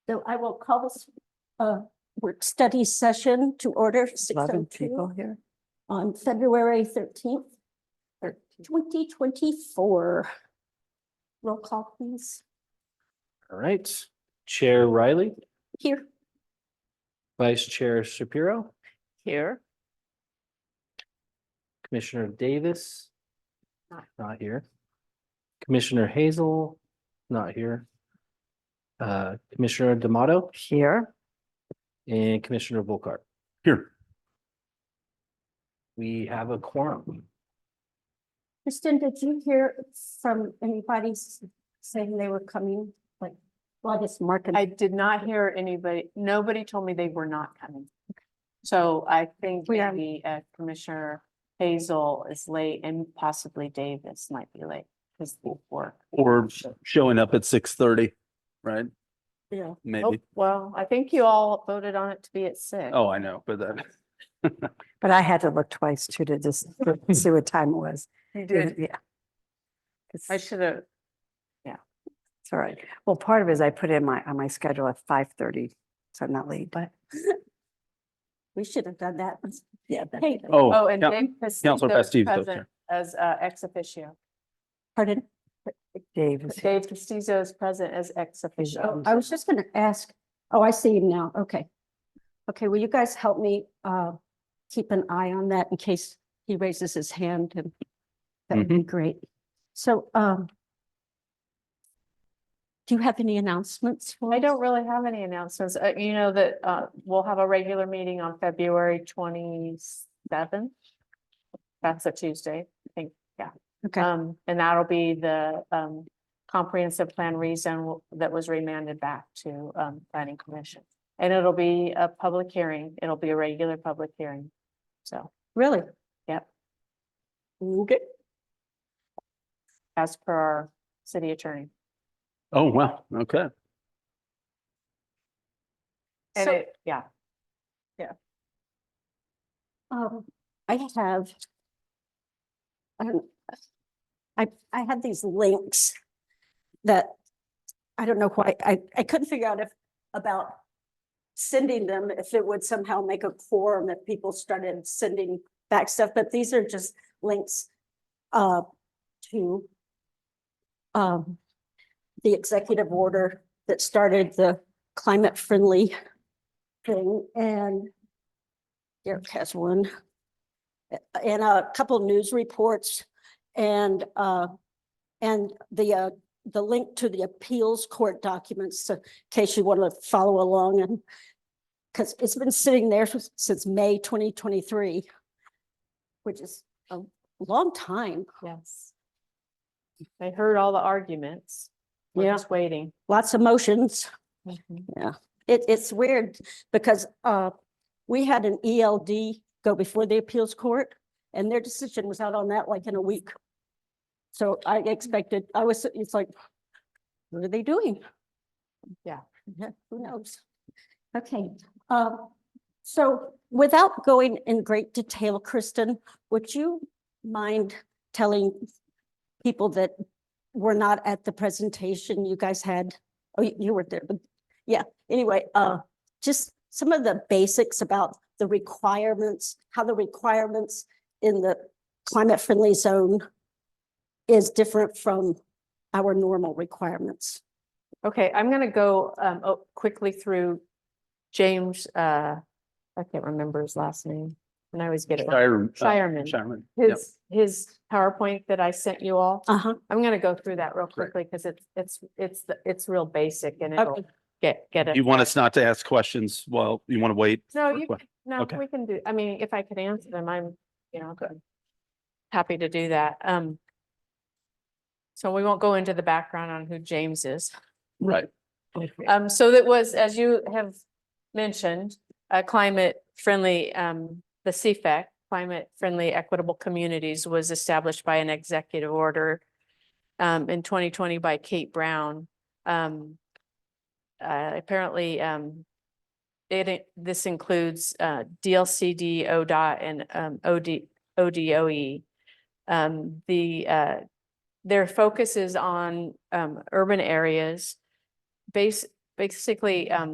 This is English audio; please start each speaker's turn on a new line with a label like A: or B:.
A: So I will call this uh work study session to order six oh
B: Eleven people
A: two
B: here.
A: on February thirteenth, twenty twenty-four. Roll call please.
C: All right, Chair Riley,
A: Here,
C: Vice Chair Shapiro,
B: Here.
C: Commissioner Davis. Not here. Commissioner Hazel, not here. Uh, Commissioner D'Amato
B: Here.
C: and Commissioner Volkart.
D: Here.
C: We have a quorum.
A: Kristen, did you hear from anybody s- saying they were coming? Like, well, I guess Mark and
E: I did not hear anybody, nobody told me they were not coming. So I think
A: We are-
E: maybe uh, Commissioner Hazel is late and possibly Davis might be late because of work.
D: Or showing up at six thirty, right?
A: Bill.
E: Oh,
D: Maybe.
E: well, I think you all voted on it to be at six.
D: Oh, I know, but that,
B: But I had to look twice too to just see what time it was.
E: You did.
B: Yeah. It's,
E: I
B: it's
E: should have,
B: all right. Well, part of it is I put in my, on my schedule at five thirty, so I'm not late, but
A: We should have done that.
B: yeah.
A: Hey,
D: oh.
E: oh, and
D: yeah.
E: Dave Castillo
D: Counselor Bastide's up
E: present as uh, ex officio.
A: pardon.
B: Dave is
E: Dave Castillo is present as ex officio.
A: Oh, I was just gonna ask, oh, I see him now, okay. Okay, will you guys help me uh keep an eye on that in case he raises his hand and that would be great. So um do you have any announcements? for
E: I
A: us?
E: don't really have any announcements. Uh, you know that, uh, we'll have a regular meeting on February twenty-seventh. That's a Tuesday, I think, yeah.
A: Okay.
E: Um, and that'll be the, um, comprehensive plan reason that was remanded back to, um, planning commission. And it'll be a public hearing. It'll be a regular public hearing. So
A: Really?
E: Yep.
A: Okay.
E: as per our city attorney.
D: Oh, wow. Okay.
E: And
A: So-
E: it, yeah.
A: Um, I have. I don't, I, I had these links that, I don't know why, I, I couldn't figure out if, about sending them, if it would somehow make a quorum if people started sending back stuff, but these are just links uh, to um, the executive order that started the climate friendly thing and Derek has one. Uh, And a couple news reports and, uh, and the, uh, the link to the appeals court documents, so in case you want to follow along and because it's been sitting there since- since May twenty twenty-three, which is a long time.
E: Yes. I heard all the arguments. We're
A: Yeah. Mm-hmm.
E: just Waiting.
A: Lots of motions. It, it's weird because, uh, we had an ELD go before the appeals court and their decision was out on that like in a week. So I expected, I was, it's like, what are they doing?
E: Yeah.
A: Yeah, Who knows? Okay, um, so without going in great detail, Kristen, would you mind telling people that were not at the presentation you guys had? Oh, you- you were there, but anyway, uh, just some of the basics about the requirements, how the requirements in the climate friendly zone is different from our normal requirements.
E: Okay, I'm gonna go um oh, quickly through James, uh, I can't remember his last name, and I always get it wrong.
D: Shire- uh,
E: Shireman.
D: Shireman. Yep.
E: His, his PowerPoint that I sent you all,
A: Uh-huh.
E: I'm gonna go through that real quickly, because it's, it's, it's, the- it's real basic and it'll get, get it.
D: You want us not to ask questions while you want to wait?
E: No,
D: for
E: Oh, you,
D: que-
E: can- no,
D: Okay.
E: we can do, I mean, if I could answer them, I'm, you know, happy to do that. Um, so we won't go into the background on who James is.
D: Right.
E: Um, so that was, as you have mentioned, uh, climate friendly, um, the CFAC, Climate Friendly Equitable Communities was established by an executive order um, in twenty twenty by Kate Brown. Um, uh, apparently, um, it, in- this includes, uh, DLCD, ODOT and, um, OD, ODOE. E. Um, the, uh, their focus is on, um, urban areas base, ba- basically, um,